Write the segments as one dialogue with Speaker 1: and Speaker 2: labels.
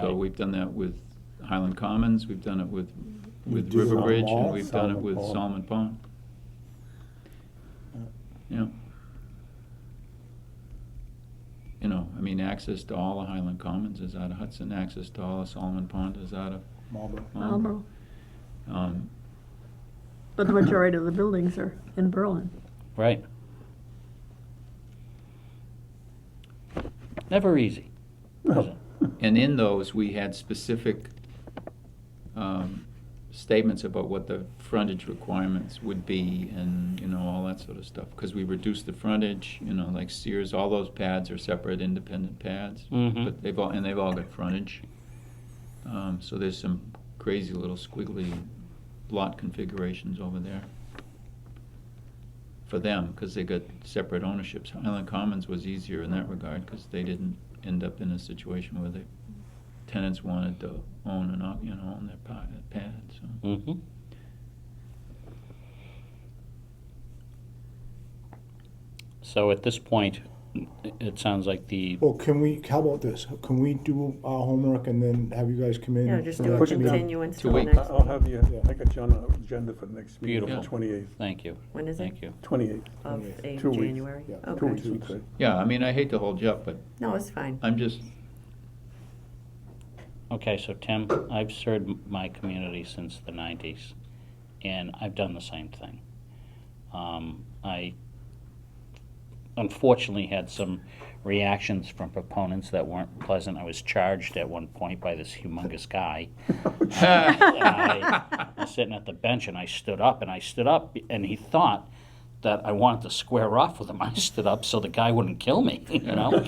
Speaker 1: So Uh, we've done that with Highland Commons, we've done it with,
Speaker 2: We
Speaker 1: with
Speaker 2: do it on
Speaker 1: River Bridge, and
Speaker 2: all,
Speaker 1: we've done it
Speaker 2: Solomon
Speaker 1: with
Speaker 2: Pond. Uh,
Speaker 1: Solomon Pond. Yeah. You know, I mean, access to all of Highland Commons is out of Hudson, access to all of Solomon Pond is out of
Speaker 2: Marlboro.
Speaker 1: Marlboro.
Speaker 3: Marlboro.
Speaker 1: Um,
Speaker 3: But the majority of the buildings are in Berlin.
Speaker 4: Right. Never easy. is
Speaker 2: Oh.
Speaker 4: it?
Speaker 1: And in those, we had specific um, statements about what the frontage requirements would be and, you know, all that sort of stuff. Because we reduced the frontage, you know, like Sears, all those pads are separate, independent pads.
Speaker 4: Mhm.
Speaker 1: But they've all, and they've all got frontage. Um, So there's some crazy little squiggly lot configurations over there for them, because they got separate ownerships. Highland Commons was easier in that regard, because they didn't end up in a situation where the tenants wanted to own and, you know, own their pa- pad, so.
Speaker 4: Mm-hmm. So at this point, it sounds like the,
Speaker 2: Well, can we, how about this? Can we do our homework and then have you guys come in?
Speaker 5: Yeah, just
Speaker 2: for
Speaker 5: do
Speaker 2: the
Speaker 5: a
Speaker 2: next meeting?
Speaker 5: continuance
Speaker 1: Two
Speaker 5: till the
Speaker 1: weeks.
Speaker 5: next,
Speaker 6: I'll have you, I got you on the agenda for the next meeting,
Speaker 4: Beautiful.
Speaker 6: twenty-eighth,
Speaker 4: thank you,
Speaker 5: when is it?
Speaker 4: thank you.
Speaker 6: twenty-eighth,
Speaker 5: Of
Speaker 2: Two
Speaker 5: a
Speaker 6: weeks. Two weeks.
Speaker 5: January?
Speaker 2: Yeah,
Speaker 5: Okay.
Speaker 6: two weeks, we'd say.
Speaker 1: Yeah, I mean, I hate to hold you up, but
Speaker 5: No, it's fine.
Speaker 1: I'm just,
Speaker 4: Okay, so Tim, I've served my community since the nineties, and I've done the same thing. Um, I unfortunately had some reactions from proponents that weren't pleasant. I was charged at one point by this humongous guy. And I was sitting at the bench and I stood up and I stood up and he thought that I wanted to square off with him. I stood up so the guy wouldn't kill me, you know?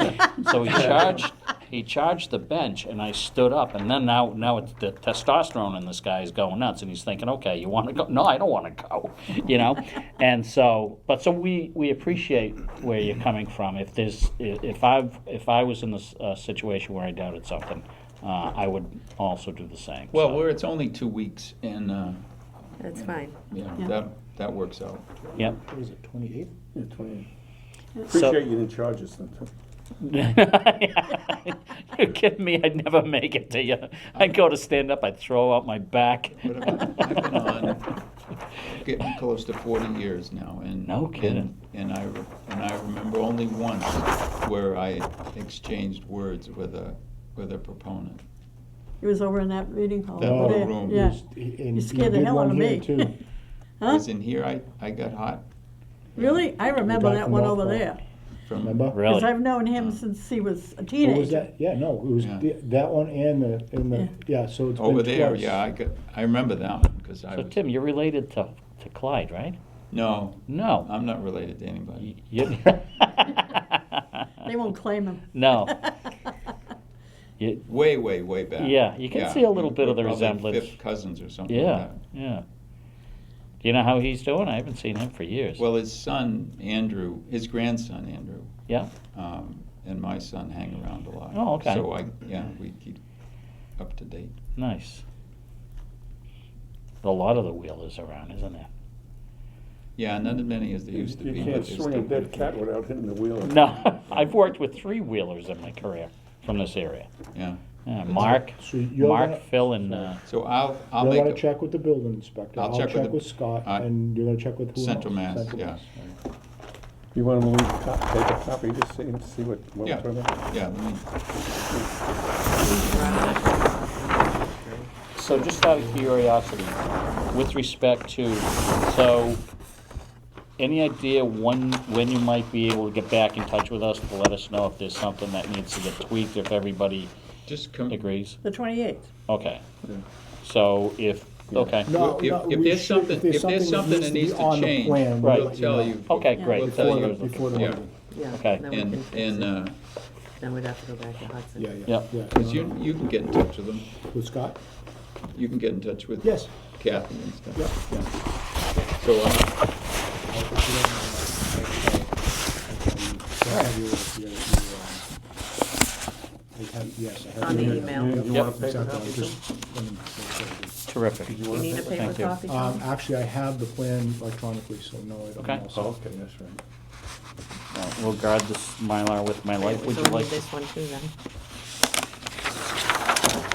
Speaker 4: so he charged he charged the bench and I stood up and then now now it's the testosterone in this guy is going nuts and he's thinking, Okay, you wanna go? No, I don't wanna go you know? And so but so we, we appreciate where you're coming from. If there's if if I've if I was in this uh, situation where I doubted something, uh, I would also do the same.
Speaker 1: well,
Speaker 4: So-
Speaker 1: we're, it's only two weeks, and, uh,
Speaker 5: That's fine.
Speaker 1: you know,
Speaker 3: Yeah.
Speaker 1: that, that works out.
Speaker 4: Yep.
Speaker 2: What is it, twenty-eighth?
Speaker 6: Yeah, twenty-eighth.
Speaker 4: So-
Speaker 6: Appreciate you didn't charge us, then.
Speaker 4: You're kidding me? I'd never make it to you. I'd go to stand up, I'd throw out my back.
Speaker 1: But I've I've been on, getting close to forty years now, and.
Speaker 4: No
Speaker 1: and-
Speaker 4: kidding.
Speaker 1: And I, re- and I remember only once where I exchanged words with a, with a proponent.
Speaker 3: It was over in that meeting hall.
Speaker 1: That
Speaker 3: over
Speaker 2: little
Speaker 3: there.
Speaker 1: room.
Speaker 3: Yeah.
Speaker 2: You
Speaker 3: You scared the hell out of me.
Speaker 1: It
Speaker 3: Huh?
Speaker 1: was in here, I, I got hot
Speaker 3: Really? I remember
Speaker 2: back
Speaker 3: that
Speaker 2: from
Speaker 3: one
Speaker 2: North
Speaker 3: over
Speaker 2: Pole.
Speaker 3: there.
Speaker 1: from.
Speaker 2: Remember?
Speaker 3: Because
Speaker 4: Really?
Speaker 3: I've known him since he was a
Speaker 2: What was
Speaker 3: teenager.
Speaker 2: that? Yeah, no, it was
Speaker 1: Yeah.
Speaker 2: the- that one and the, and the, yeah, so it's been
Speaker 1: Over there,
Speaker 2: twice.
Speaker 1: yeah, I got, I remember that one, because I
Speaker 4: So,
Speaker 1: was,
Speaker 4: Tim, you're related to, to Clyde, right?
Speaker 1: no,
Speaker 4: No.
Speaker 1: I'm not related to anybody.
Speaker 4: You-
Speaker 3: They won't claim him.
Speaker 4: no. You-
Speaker 1: Way, way, way back.
Speaker 4: Yeah, you can see a little bit of the
Speaker 1: We're probably
Speaker 4: resemblance.
Speaker 1: Fifth cousins or something like
Speaker 4: yeah,
Speaker 1: that.
Speaker 4: yeah. Do you know how he's doing? I haven't seen him for years.
Speaker 1: Well, his son, Andrew, his grandson, Andrew,
Speaker 4: yeah.
Speaker 1: um, and my son hang around a lot.
Speaker 4: Oh, okay.
Speaker 1: So I, yeah, we keep up to date.
Speaker 4: Nice. A lot of the wheel is around, isn't there?
Speaker 1: Yeah, not as many as they used to be.
Speaker 6: You
Speaker 1: but
Speaker 6: can't
Speaker 1: there's
Speaker 6: swing a
Speaker 1: still
Speaker 6: dead
Speaker 1: quite
Speaker 6: cat
Speaker 1: few.
Speaker 6: without hitting the wheel.
Speaker 4: No, I've worked with three wheelers in my career from this area.
Speaker 1: Yeah.
Speaker 4: Yeah, Mark,
Speaker 2: So you're gonna-
Speaker 4: Mark, Phil, and uh,
Speaker 1: So I'll, I'll
Speaker 2: You're
Speaker 1: make,
Speaker 2: gonna
Speaker 1: a-
Speaker 2: check with the building inspector.
Speaker 1: I'll check with the-
Speaker 2: with Scott
Speaker 1: I-
Speaker 2: and you're gonna check with who?
Speaker 1: Central
Speaker 2: else?
Speaker 1: Mass,
Speaker 2: Central
Speaker 1: yeah.
Speaker 2: Mass.
Speaker 6: You want to leave, co- take a copy, just see, see what, what
Speaker 1: yeah,
Speaker 6: we're talking about?
Speaker 1: yeah, let me,
Speaker 4: so just out of curiosity, with respect to, so, any idea when, when you might be able to get back in touch with us to let us know if there's something that needs to get tweaked, if everybody
Speaker 1: just come, if,
Speaker 4: agrees?
Speaker 3: The 28th.
Speaker 4: Okay. So if, okay,
Speaker 2: No,
Speaker 1: if-
Speaker 2: no,
Speaker 1: if
Speaker 2: we
Speaker 1: there's
Speaker 2: should-
Speaker 1: something- if there's something that needs
Speaker 2: be
Speaker 1: to
Speaker 2: on the
Speaker 1: change,
Speaker 2: plan,
Speaker 4: Right.
Speaker 2: let
Speaker 1: we'll tell you.
Speaker 4: Okay, great.
Speaker 1: We'll
Speaker 4: That's
Speaker 1: tell
Speaker 2: Before the,
Speaker 1: you.
Speaker 2: before the
Speaker 1: Yeah.
Speaker 2: meeting.
Speaker 5: Yeah.
Speaker 4: Okay.
Speaker 5: then we
Speaker 1: And,
Speaker 5: can fix
Speaker 1: and,
Speaker 5: it.
Speaker 1: uh,
Speaker 5: Then we'd have to go back to Hudson.
Speaker 2: Yeah, yeah,
Speaker 4: Yep.
Speaker 2: yeah.
Speaker 1: cause you, you can get in touch with them.
Speaker 2: With Scott?
Speaker 1: You can get in touch with.
Speaker 2: Yes.
Speaker 1: Kathy and
Speaker 2: Yeah,
Speaker 1: stuff.
Speaker 2: yeah.
Speaker 1: So, uh,
Speaker 2: On
Speaker 5: On the email.
Speaker 6: You- You
Speaker 4: Yep.
Speaker 6: want to take a copy?
Speaker 4: terrific.
Speaker 5: You need a paper
Speaker 4: Thank you.
Speaker 5: copy?
Speaker 2: Um,
Speaker 5: Tom?
Speaker 2: actually, I have the plan electronically, so no, I don't.
Speaker 4: Okay.
Speaker 2: know.
Speaker 6: Oh,
Speaker 2: So-
Speaker 6: okay, that's right.
Speaker 4: We'll guard this Mylar with my life. Would
Speaker 5: So
Speaker 4: you
Speaker 5: we need
Speaker 4: like to
Speaker 5: this one too then.